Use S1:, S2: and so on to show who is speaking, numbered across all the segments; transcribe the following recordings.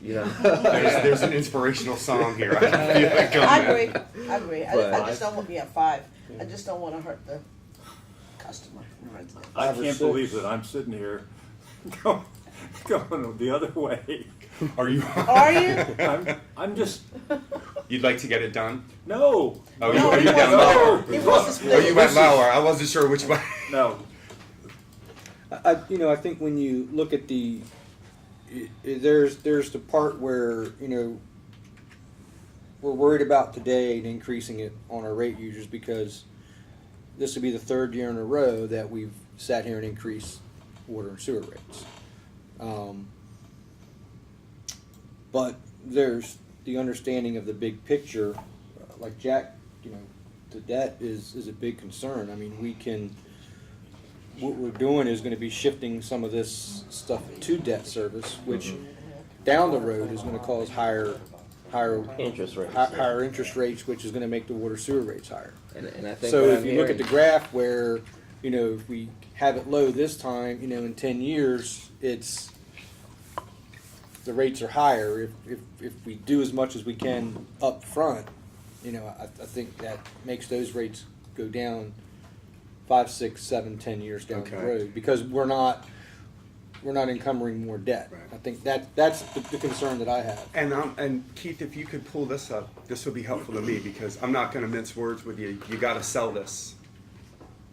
S1: you know.
S2: There's, there's an inspirational song here. I can feel it coming.
S3: I agree, I agree, I just,
S1: But-
S3: I just don't want, yeah, five, I just don't wanna hurt the customer.
S4: I
S1: Five or
S4: can't believe
S1: six.
S4: that I'm sitting here going, going the other way.
S2: Are you?
S3: Are you?
S4: I'm, I'm just,
S2: You'd like to get it done?
S4: no.
S2: Oh, you
S3: No,
S2: are
S3: he
S2: you down lower?
S3: wants, to- he wants to
S2: Oh,
S3: split.
S2: you
S3: it.
S2: went lower. I wasn't sure which way.
S4: No,
S5: I, I- you know, I think when you look at the, i- i- there's, there's the part where, you know, we're worried about today and increasing it on our rate users because this would be the third year in a row that we've sat here and increased water and sewer rates. Um, But there's the understanding of the big picture, uh, like Jack, you know, the debt is, is a big concern. I mean, we can, what we're doing is gonna be shifting some of this stuff to debt service, which down the road is gonna cause higher, higher.
S1: Interest rates,
S5: hi-
S1: yeah.
S5: Higher interest rates, which is gonna make the water sewer rates higher.
S1: And, and I think
S5: So
S1: what
S5: if
S1: I'm
S5: you look at the
S1: hearing-
S5: graph where, you know, if we have it low this time, you know, in ten years, it's, the rates are higher. If, if, if we do as much as we can up front, you know, I, I think that makes those rates go down five, six, seven, ten years down the
S2: Okay.
S5: road. Because we're not, we're not encumbering more debt.
S2: Right.
S5: I think that, that's the, the concern that I have.
S2: And um, and Keith, if you could pull this up, this would be helpful to me because I'm not going to mince words with you. You got to sell this.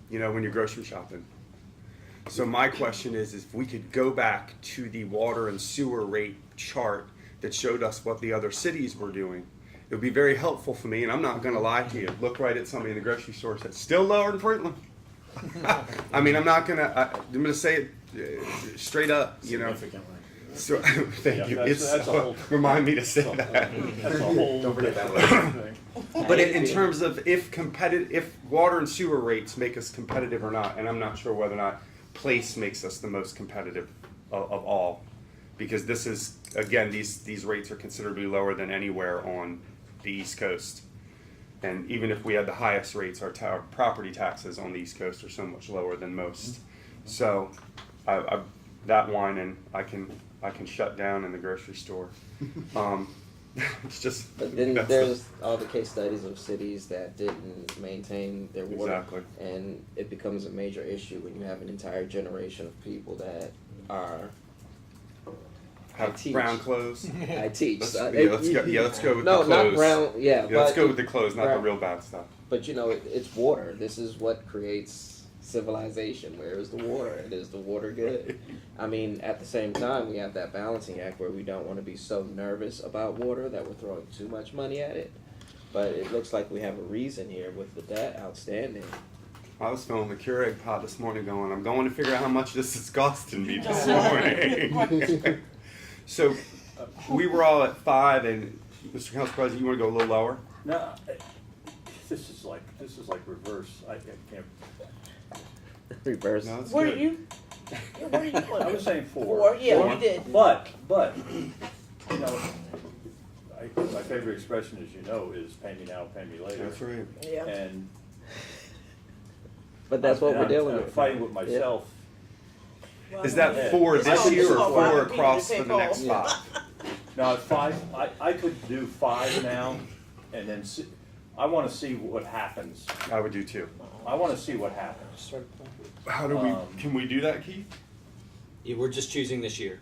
S2: You know, when you're grocery shopping. So my question is, is if we could go back to the water and sewer rate chart that showed us what the other cities were doing, it would be very helpful for me. And I'm not going to lie to you. Look right at somebody in the grocery store that's still lower than Franklin. I mean, I'm not gonna. I, I'm gonna say it uh, straight up. You know,
S6: Significantly.
S2: So, thank
S4: Yeah,
S2: you.
S4: that's-
S2: It's- uh,
S4: that's a whole-
S2: remind me to say
S4: that's
S2: that.
S4: a whole different thing.
S2: But in, in terms of if competitive, if water and sewer rates make us competitive or not, and I'm not sure whether or not place makes us the most competitive of, of all, because this is again these these rates are considerably lower than anywhere on the East Coast, and even if we had the highest rates, our, ta- our property taxes on the East Coast are so much lower than most. So, I, I that wine and I can I can shut down in the grocery store. Um, it's just
S1: But then
S2: that's the-
S1: there's all the case studies of cities that didn't maintain their water.
S2: Exactly.
S1: And it becomes a major issue when you have an entire generation of people that are, I
S2: have
S1: teach.
S2: brown clothes.
S1: I teach.
S2: Let's,
S1: so
S2: yeah,
S1: I-
S2: let's go, yeah, let's go with
S1: No,
S2: the clothes.
S1: not brown, yeah.
S2: Yeah, let's
S1: but-
S2: go with the clothes, not the
S1: Right.
S2: real bad stuff.
S1: But you know, it, it's water. This is what creates civilization. Where is the water? And is the water good? I mean, at the same time, we have that balancing act where we don't want to be so nervous about water that we're throwing too much money at it. But it looks like we have a reason here with the debt outstanding.
S2: I was filming a Keurig pot this morning going, I'm going to figure out how much this is costing me this morning. so we were all at five, and Mr. Council President, you want to go a little lower?
S4: No, I- this is like, this is like reverse. I I can't,
S1: Reverse.
S2: No, that's
S3: Where
S2: good.
S3: you? yeah, Where you?
S4: I was saying four.
S3: Four, yeah,
S2: Four?
S3: you did.
S4: But, but, you know, I, my favorite expression, as you know, is pay me now, pay me later.
S2: That's right.
S3: Yeah.
S4: And
S1: But that's what
S4: I'm-
S1: we're dealing
S4: I'm
S1: with.
S4: Fighting with
S1: Yeah.
S4: myself.
S2: Is that four
S3: It's
S2: this
S3: all-
S2: year
S3: it's
S2: or
S3: all
S2: four
S3: right.
S2: across for
S3: People
S2: the
S3: take
S2: next
S5: all-
S2: five?
S4: Now, at five, I, I could do five now, and then see, I wanna see what happens.
S2: I would do two.
S4: I wanna see what happens.
S2: How do we,
S4: Um,
S2: can we do that, Keith?
S7: Yeah, we're just choosing this year,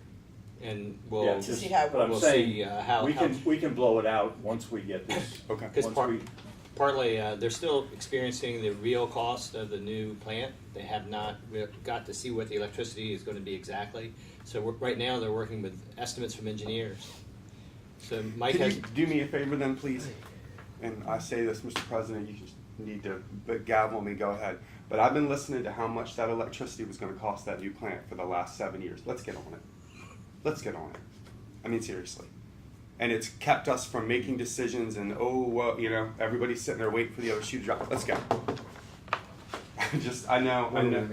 S7: and
S4: Yeah,
S7: we'll
S4: just-
S3: see how-
S4: But I'm
S7: We'll
S4: saying,
S7: see, uh, how-
S4: we
S7: how-
S4: can, we can blow it out once we get this.
S2: Okay.
S7: Because
S4: once
S7: part-
S4: we-
S7: partly uh, they're still experiencing the real cost of the new plant. They have not re- got to see what the electricity is going to be exactly. So we're, right now they're working with estimates from engineers. So Mike
S2: Can
S7: has
S2: you do me a favor then, please? And I say this, Mr. President, you just need to but gavel me, go ahead. But I've been listening to how much that electricity was gonna cost that new plant for the last seven years. Let's get on it. Let's get on it. I mean, seriously. And it's kept us from making decisions and, oh, well, you know, everybody's sitting there waiting for the other shoe to drop. Let's go. I just, I know, I know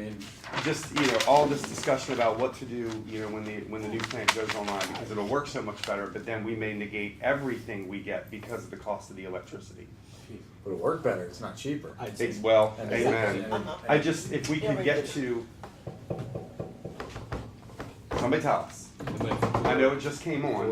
S2: just you know all this discussion about what to do you know when the when the new plant goes online because it'll work so much better but then we may negate everything we get because of the cost of the electricity
S6: Would it work better? It's not cheaper.
S7: I'd say
S2: It's- well
S6: And it's-
S2: amen
S6: and-
S2: i just if we could get to somebody tell us i know it just came on